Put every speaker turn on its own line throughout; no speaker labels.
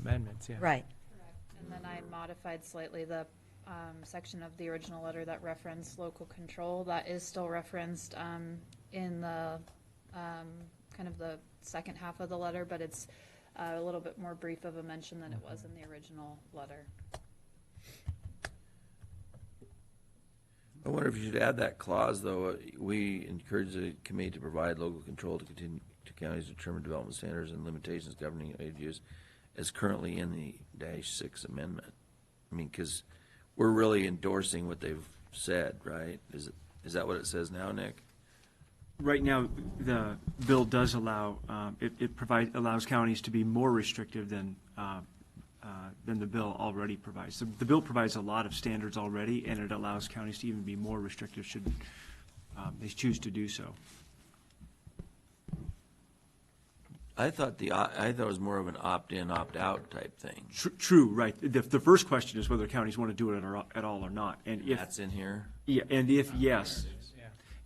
Amendments, yeah.
Right,
And then I modified slightly the um, section of the original letter that referenced local control. That is still referenced um, in the, um, kind of the second half of the letter, but it's uh, a little bit more brief of a mention than it was in the original letter.
I wonder if you should add that clause, though, uh, we encourage the committee to provide local control to continue to counties to determine development standards and limitations governing land use as currently in the dash six amendment. I mean, because we're really endorsing what they've said, right? Is, it- is that what it says now, Nick?
Right now, the bill does allow, um, it, it provides, allows counties to be more restrictive than, uh, uh, than the bill already provides. The, the bill provides a lot of standards already, and it allows counties to even be more restrictive should, um, they choose to do so.
I thought the, o- I thought it was more of an opt-in, opt-out type thing.
Tr- True, right. The, the first question is whether counties want to do it at, at all or not. And if,
That's in here.
yeah, and if yes,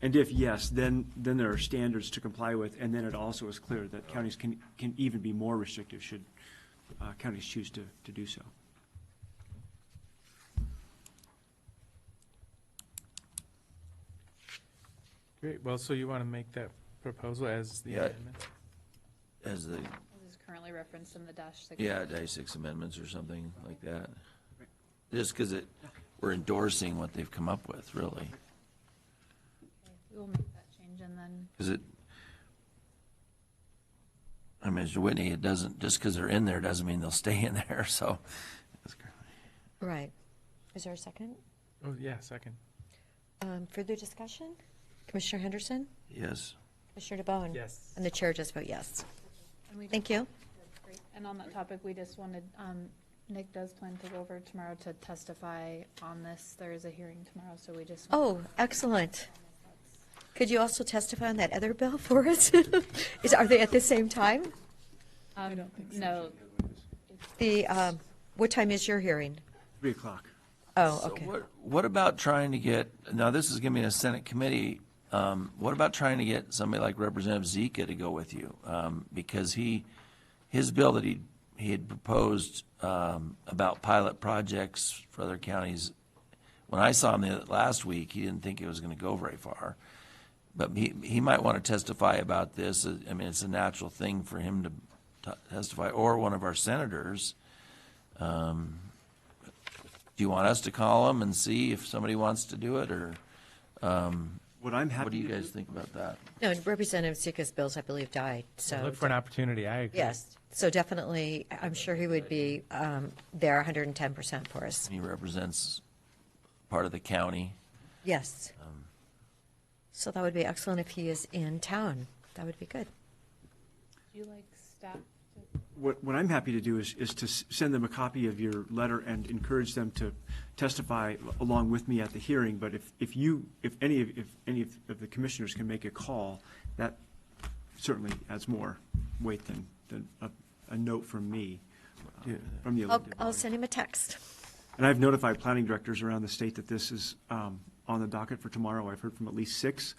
and if yes, then, then there are standards to comply with, and then it also is clear that counties can, can even be more restrictive should, uh, counties choose to, to do so.
Great, well, so you want to make that proposal as the
Yeah.
amendment?
As the,
This is currently referenced in the dash six.
yeah, dash six amendments or something like that. Just because it, we're endorsing what they've come up with, really.
We will make that change and then,
Because it, I mean, Mr. Whitney, it doesn't, just because they're in there doesn't mean they'll stay in there, so.
right. Is there a second?
Oh, yeah, second.
Um, Further discussion? Commissioner Henderson?
Yes.
Commissioner DeBonne?
Yes.
And the chair just vote yes.
and we,
Thank you.
and on that topic, we just wanted, um, Nick does plan to go over tomorrow to testify on this. There is a hearing tomorrow, so we just. Um,
Oh, excellent. Could you also testify on that other bill for us? Is, are they at the same time?
I don't think so. No,
The, um, what time is your hearing?
Three o'clock.
Oh,
So
okay.
what, what about trying to get, now this is gonna be in a Senate committee, um, what about trying to get somebody like Representative Zika to go with you? Um, because he, his bill that he, he had proposed, um, about pilot projects for other counties, when I saw him the last week, he didn't think it was gonna go very far. But he, he might want to testify about this. uh, I mean, it's a natural thing for him to t- testify, or one of our senators. Um, Do you want us to call him and see if somebody wants to do it, or
What I'm
what do
happy
you
to
guys
do,
think about that?
No, Representative Zika's bills, I believe, died, so.
Look for an opportunity, I agree.
Yes, so definitely, I'm sure he would be um, there 110% for us.
He represents part of the county.
Yes.
Um,
So that would be excellent if he is in town. That would be good.
do you like staff to
what, what I'm happy to do is, is to s- send them a copy of your letter and encourage them to testify al- along with me at the hearing, but if, if you, if any, of if any of of the commissioners can make a call, that certainly adds more weight than, than a, a note from me, uh, from the
I'll,
elected
I'll
body.
send him a text.
And I've notified planning directors around the state that this is um, on the docket for tomorrow. I've heard from at least six.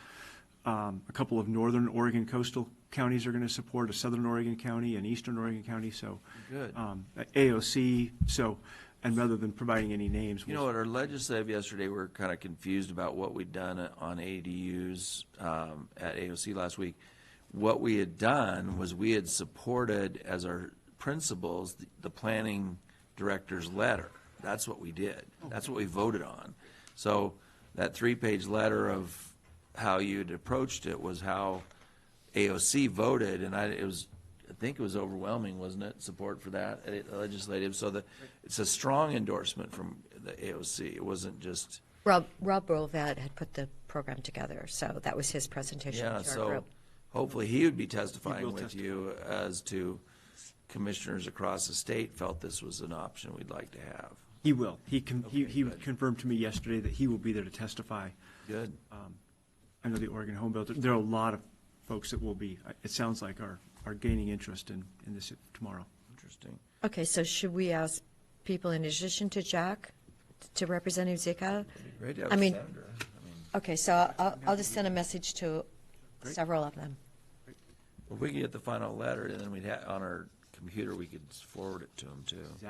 Um, A couple of northern Oregon coastal counties are going to support, a southern Oregon county, and eastern Oregon county, so.
Good.
um, AOC, so, and rather than providing any names.
You know, at our legislative yesterday, we were kind of confused about what we'd done on ADUs um, at AOC last week. What we had done was we had supported as our principals, the- the planning director's letter. That's what we did. That's what we voted on. So that three-page letter of how you'd approached it was how AOC voted, and I, it was, I think it was overwhelming, wasn't it, support for that uh, legislative? So the, it's a strong endorsement from the AOC. It wasn't just,
Rob, Rob Rolvad had put the program together, so that was his presentation
yeah,
to our
so
group.
hopefully he would be
will
testifying with you as to commissioners across the state felt this was an option we'd like to have.
He will. He con- he
Okay,
he
good.
confirmed to me yesterday that he will be there to testify.
Good.
I know the Oregon Home Bill, there are a lot of folks that will be, it sounds like are, are gaining interest in, in this tomorrow.
Interesting.
Okay, so should we ask people in addition to Jack, to Representative Zika?
Great to have
I
a
mean-
senator. I mean,
Okay, so I'll, I'll just send a message to several of them.
If we could get the final letter, and then we'd have, on our computer, we could forward it to them too.